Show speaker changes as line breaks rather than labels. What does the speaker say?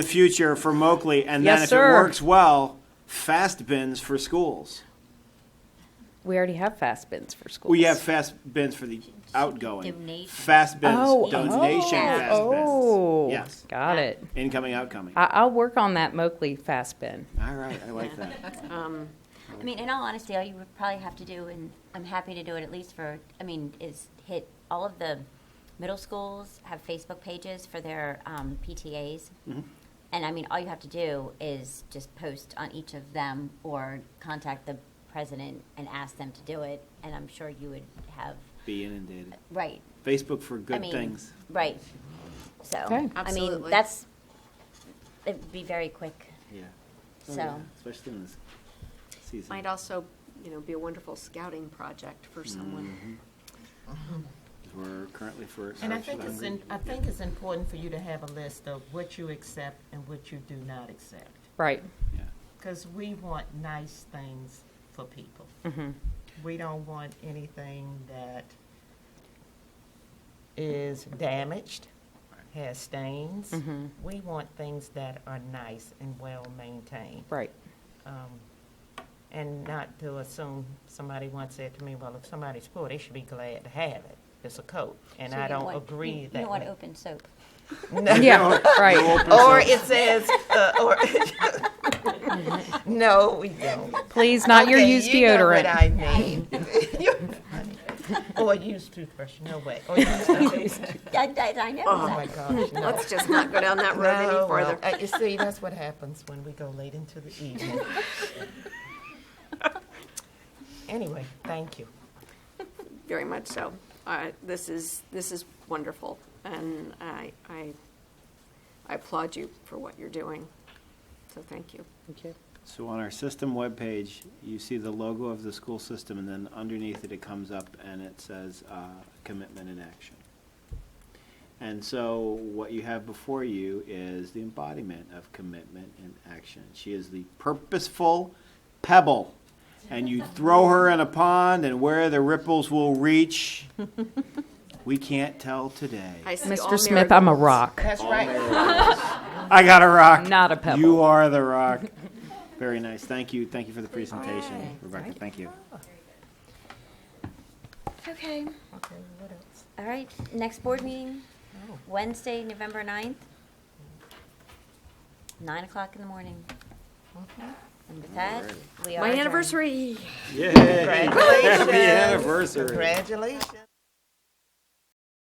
the future for Moakley, and then
Yes,
if it
sir.
works well, fast bins for schools.
We already have fast bins for schools.
We have fast bins for the outgoing.
Donation.
Fast bins,
Oh,
donation
oh,
fast
Oh,
bins. Yes,
got it.
incoming, outgoing.
I, I'll work on that Moakley fast bin.
All right, I like that.
I mean, in all honesty, all you would probably have to do, and I'm happy to do it at least for, I mean, is hit, all of the middle schools have Facebook pages for their um, PTAs.
Mm-hmm.
And I mean, all you have to do is just post on each of them or contact the president and ask them to do it. And I'm sure you would have,
Be inundated.
right,
Facebook for
I
good
mean,
things.
Right. So,
Okay.
I mean,
Absolutely.
that's, it'd be very quick,
Yeah. Oh, yeah,
so.
Especially in this season.
Might also, you know, be a wonderful scouting project for someone.
We're currently for.
And I
search
think it's,
hungry.
in- I think it's important for you to have a list of what you accept and what you do not accept.
Right.
Yeah.
Because we want nice things for people.
Mm-hmm.
We don't want anything that is damaged, has stains.
Mm-hmm.
We want things that are nice and well-maintained.
Right.
um, And not to assume, somebody once said to me, well, if somebody's poor, they should be glad to have it. It's a coat. And
So
I
you
don't
want-
agree
you-
that
You want
way.
open soap.
Yeah. Right.
Or it says, uh, or, no, we don't.
Please, not your
Okay,
used
you know what
deodorant.
I mean. You're funny. Or used toothbrush, no way. Or used, oh
I, I, I know.
my gosh, no.
Let's just not go down that road
No,
any
well,
further.
uh, you see, that's what happens when we go late into the evening. Anyway, thank you.
Very much so. Uh, This is, this is wonderful, and I, I I applaud you for what you're doing. So thank you.
So on our system webpage, you see the logo of the school system, and then underneath it, it comes up and it says, uh, commitment in action. And so what you have before you is the embodiment of commitment in action. She is the purposeful pebble. And you throw her in a pond and where the ripples will reach, we can't tell today.
I see all
Mr. Smith, I'm a
miracles.
rock,
That's right.
I got a rock.
not a pebble.
You are the rock. Very nice. Thank you. Thank you for the presentation, Rebecca. Thank you.
Okay.
Okay, what else?
All right, next board meeting,
Oh.
Wednesday, November 9th, 9 o'clock in the morning. And with that, we are
My
adjourned.
anniversary.
Yay!
Congratulations.
Happy anniversary.
Congratulations.